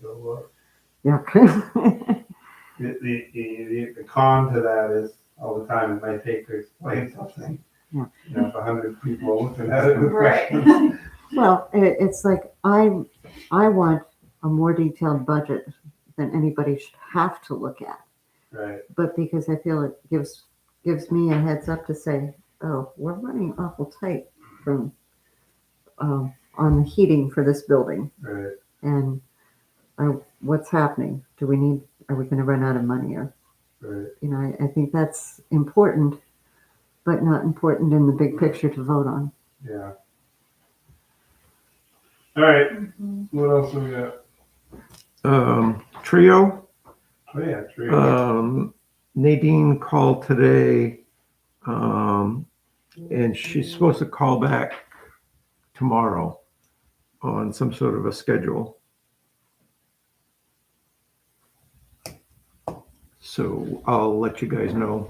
So, uh, Okay. the, the, the, the con to that is all the time it might take to explain something. Yeah. You know, if a hundred people are looking at it with Right. questions. well, it, it's like I, I want a more detailed budget than anybody should have to look at. Right, but because I feel it gives gives me a heads up to say, oh, we're running awful tight from um, on the heating for this building, right, and I, what's happening? Do we need? Are we going to run out of money? Or right. you know, I, I think that's important, but not important in the big picture to vote on. Yeah. All right. Mhm. What else we got? um, trio. Oh yeah, tree. Um, Nadine called today, um, and she's supposed to call back tomorrow on some sort of a schedule. So I'll let you guys know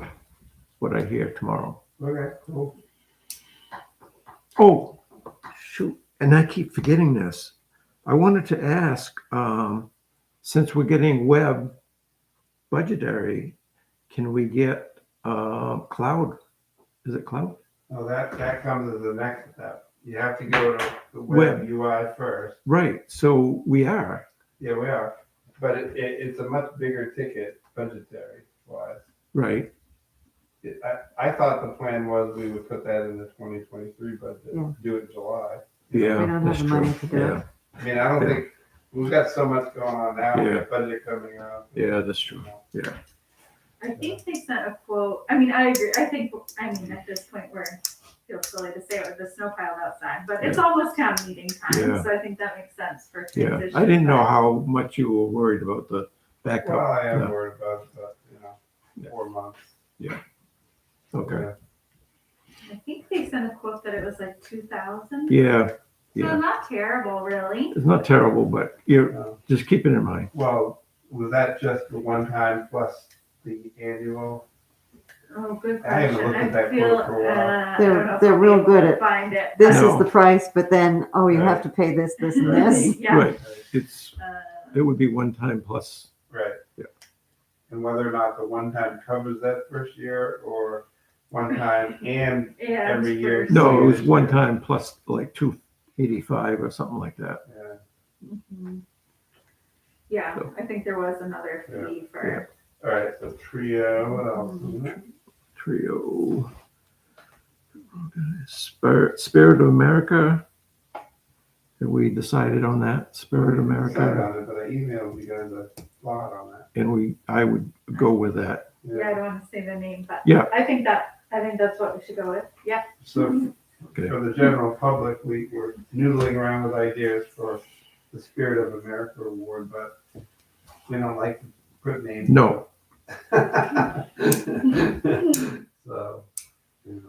what I hear tomorrow. okay, cool. Oh, shoot. And I keep forgetting this. I wanted to ask, um, since we're getting web budgetary, can we get, uh, cloud? Is it cloud? Well, that that comes as the next step. You have to go to the Web. web UI first. Right. So we are. Yeah, we are. But it, it, it's a much bigger ticket budgetary wise. Right. It, I, I thought the plan was we would put that in the twenty twenty-three Yeah. budget, do it in July. We Yeah. don't that's have the true. money to do it. Yeah. I mean, I don't think, we've got so much going on now, with Yeah. the budget coming up. Yeah, that's true. I think they sent a quote, I mean, I agree, I think, I mean, at this point, we're, feels silly to say it with the snow piled outside, but it's almost town meeting Yeah. time, so I think that makes sense for Yeah. transition. I didn't know how much you were worried about the Well, backup. I am Yeah. worried about, but, you know, Yeah. four months. Okay. I think they sent a quote that it was like two thousand, Yeah. so Yeah. not terrible, really. It's not terrible, but you're Uh, just keep it in mind. Well, was that just the one time plus the annual? Oh, good I haven't question, looked at I that feel, quote uh, for a while. I They're- don't know if they're I'll be real able good to at- Find it. uh, This No. is the price, but then oh, you have Right. to pay this, this, and this. Yeah. Right. It's, Uh, it would be one time plus. Right. Yeah. And whether or not the one time covers that first year or one time and, yeah, Every it's year. for- No, it was one time plus like two eighty-five or something like that. uh, Mhm. Yeah, So. I think there was another Yeah. fee for, all right, so trio, uh, what else? is there? Trio. Spirit, Spirit of America. And we decided on that, Spirit of Decided America, on it, But I emailed you guys a lot on that. and we, I would go with that. yeah, I don't want to say the name, but Yeah. I think that, I think that's what we should go with, yeah. So Okay. for the general public, we were noodling around with ideas for the Spirit of America Award, but we don't like to put names. No. So, you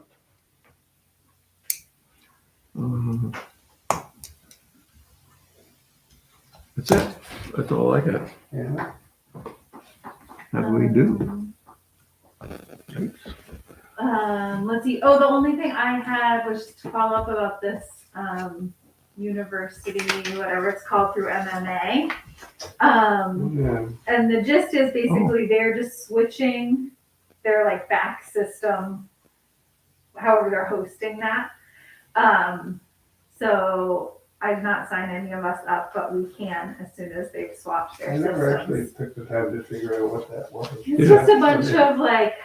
know, Um, That's it. That's all I got. yeah, How do we do? Um, Um, let's see, oh, the only thing I had was just to follow up about this, um, university, whatever it's called through MMA. Um, yeah, And the gist Oh. is basically they're just switching their like back system, however they're hosting that. Um, so I've not signed any of us up, but we can as soon as they've swapped I their never actually systems. took the time to figure out what that was. It's just a bunch of like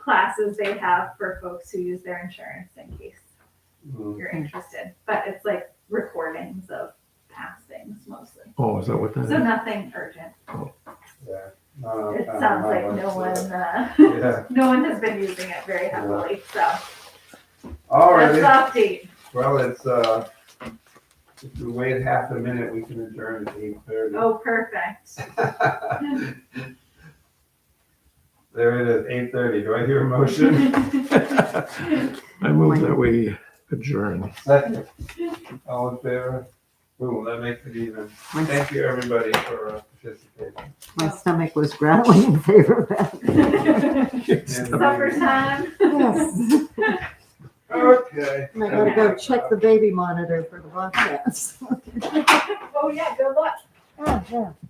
classes they have for folks who use their insurance in case Mm, you're interested. But it's like recordings of past things mostly. Oh, is that what that So Hmm. is? nothing urgent. yeah. No, no, It no, sounds no, like no, no one, uh, Yeah, No one has been using it very heavily, so all that's the right, update. well, it's, uh, if we wait half a minute, we can adjourn at eight thirty. Oh, perfect. There it is, eight thirty, do I hear a motion? Aye. I move that we adjourn. Second, all in favor? Ooh, that makes it even. My, Thank you, everybody, for uh, participating. my stomach was growling in favor of that. Supper time. Yes. Okay. And I gotta Oh. go check the baby monitor for the broadcast. Oh, yeah, good luck. Oh, yeah.